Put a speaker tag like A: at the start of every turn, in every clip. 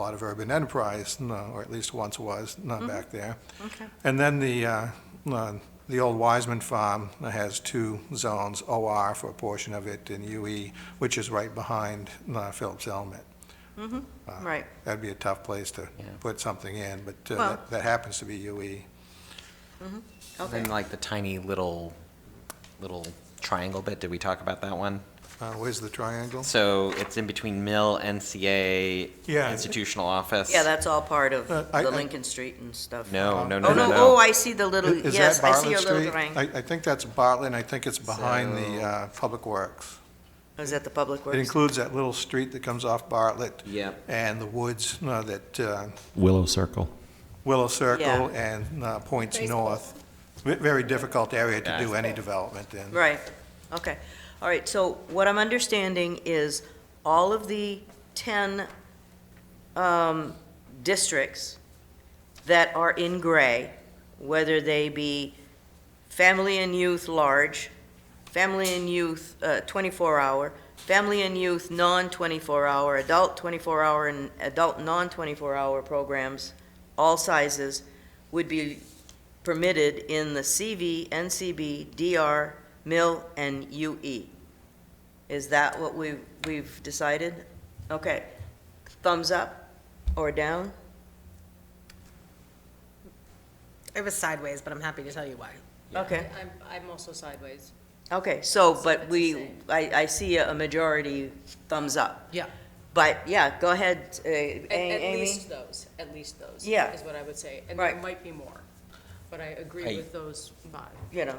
A: lot of urban enterprise, no, or at least once was,
B: Mm-hmm.
A: not back there.
B: Okay.
A: And then the, uh, uh, the old Wiseman Farm has two zones, OR for a portion of it and UE, which is right behind uh, Phillips Element.
B: Right.
A: That'd be a tough place to
C: Yeah.
A: put something in, but uh,
B: Well-
A: that- that happens to be E. UE.
B: Okay.
C: And like the tiny little, little triangle bit, did we talk about that one?
A: Uh, Where's the triangle?
C: So it's in between Mill, NCA,
A: Yeah.
C: institutional office.
B: Yeah, that's all part of
A: Uh, I-
B: the
A: I-
B: Lincoln Street and stuff.
C: No, no,
B: Oh,
C: no, no,
B: no,
C: no.
B: oh, I see the little,
A: Is- is
B: yes,
A: that
B: I see
A: Bartlett
B: your little
A: Street?
B: drawing.
A: I, I think that's Bartlett, and I think it's behind the
C: So-
A: uh, Public Works.
B: Is that the Public
A: It
B: Works?
A: includes that little street that comes off Bartlett.
C: Yep.
A: And the woods uh, that uh,
D: Willow Circle.
A: Willow
B: Yeah.
A: Circle and uh, points
E: Baseball.
A: north. Ve- Very difficult area to do
C: Yeah.
A: any development in.
B: Right, okay. All right, so what I'm understanding is all of the 10 um, districts that are in gray, whether they be family and youth large, family and youth 24-hour, family and youth non-24-hour, adult 24-hour, and adult non-24-hour programs, all sizes, would be permitted in the CV, NCB, DR, mill, and UE. Is that what we, we've decided? Okay. Thumbs up or down?
E: It was sideways, but I'm happy to tell you why.
B: Okay,
E: I'm, I'm also sideways.
B: okay, so,
E: So it's
B: but
E: the
B: we,
E: same.
B: I, I see a majority thumbs up.
E: Yeah.
B: But, yeah, go ahead, uh,
E: At, at
B: A- Amy.
E: least those, at least those.
B: Yeah.
E: Is what I would say. And there
B: Right.
E: might be more, but I
C: I-
E: agree with those five.
B: You know,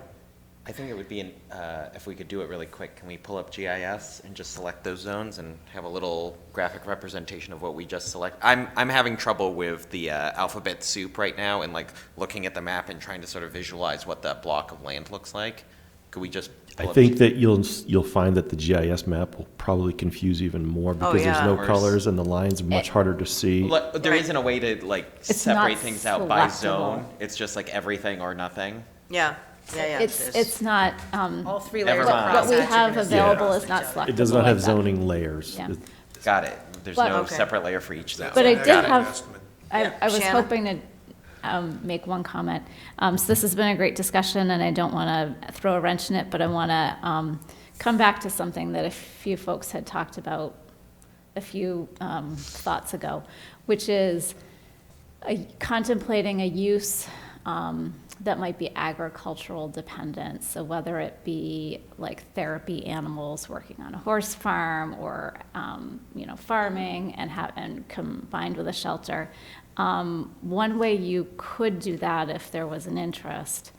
C: I think it would be, an- uh, if we could do it really quick, can we pull up GIS and just select those zones and have a little graphic representation of what we just select? I'm, I'm having trouble with the uh, alphabet soup right now and like looking at the map and trying to sort of visualize what that block of land looks like. Could we just?
D: I
C: pull up
D: think that you'll, you'll find that the GIS map will probably confuse even
F: Oh,
D: more because there's
B: yeah.
D: no
C: Worse.
D: colors and the lines are much
F: Eh,
D: harder to see.
C: Look, There
B: Right.
C: isn't a way to like
F: It's not
C: separate things out by
F: selectable.
C: zone. It's just like everything or nothing.
B: yeah, yeah, yeah.
F: It's,
B: there's-
F: it's not, um,
E: All three
C: Never
E: layers of
C: mind.
F: what we
E: process are
F: have
E: gonna sit
F: available
E: across
F: is
E: each
F: not
E: other.
F: selectable.
D: It does not
F: like
D: have
F: that.
D: zoning layers.
F: Yeah.
D: It-
C: Got it. There's
F: But-
C: no
B: Okay.
C: separate layer for each zone.
F: But I
A: Got
F: did
A: an
F: have-
A: estimate.
F: I, I was
B: Shannon?
F: hoping to um, make one comment. Um, So this has been a great discussion, and I don't want to throw a wrench in it, but I want to come back to something that a few folks had talked about a few um, thoughts ago, which is a- contemplating a use um, that might be agricultural dependent. So whether it be like therapy animals working on a horse farm or, um, you know, farming and have, and combined with a shelter. Um, One way you could do that if there was an interest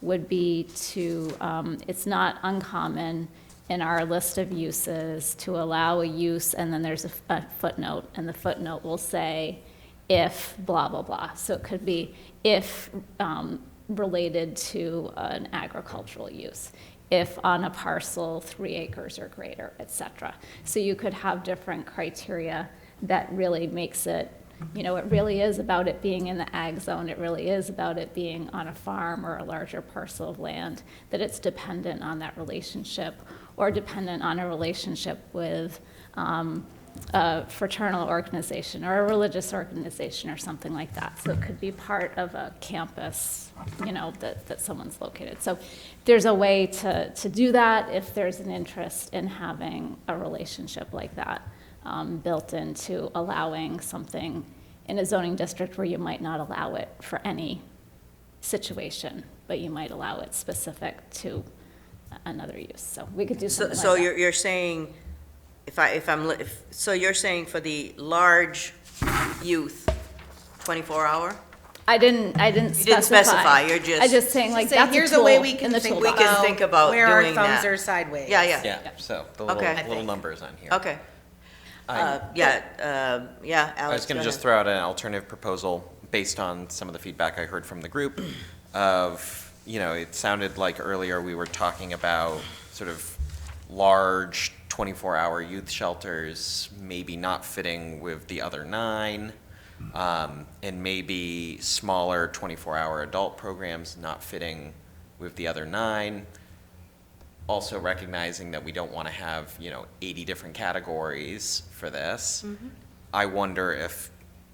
F: would be to, um, it's not uncommon in our list of uses to allow a use, and then there's a f- a footnote, and the footnote will say, if blah, blah, blah. So it could be if um, related to an agricultural use, if on a parcel three acres or greater, et cetera. So you could have different criteria that really makes it, you know, it really is about it being in the ag zone. It really is about it being on a farm or a larger parcel of land, that it's dependent on that relationship or dependent on a relationship with, um, a fraternal organization or a religious organization or something like that. So it could be part of a campus, you know, that, that someone's located. So there's a way to, to do that if there's an interest in having a relationship like that um, built into allowing something in a zoning district where you might not allow it for any situation, but you might allow it specific to another use. So we could do
B: So,
F: something
B: so
F: like that.
B: you're, you're saying, if I, if I'm, li- if, so you're saying for the large youth, twenty-four hour?
F: I didn't, I didn't
B: You
F: specify.
B: didn't specify, you're just-
F: I'm just saying, like,
E: Say,
F: that's a
E: here's a way
F: tool
E: we
F: in
E: can
F: the
E: think
B: We can
F: toolbox.
E: about
B: think about
E: where our
B: doing
E: thumbs
B: that.
E: are sideways.
B: Yeah, yeah.
C: Yeah, so the little,
B: Okay.
C: little
E: think.
C: numbers on here.
B: Okay, uh,
C: I'm-
B: yeah, uh, yeah, Alex,
C: I was going
B: go
C: to just
B: ahead.
C: throw out an alternative proposal based on some of the feedback I heard from the group of, you know, it sounded like earlier we were talking about sort of large 24-hour youth shelters maybe not fitting with the other nine, um, and maybe smaller 24-hour adult programs not fitting with the other nine also recognizing that we don't
B: Mm-hmm.
C: want to have, you know, 80 different categories for this, I wonder if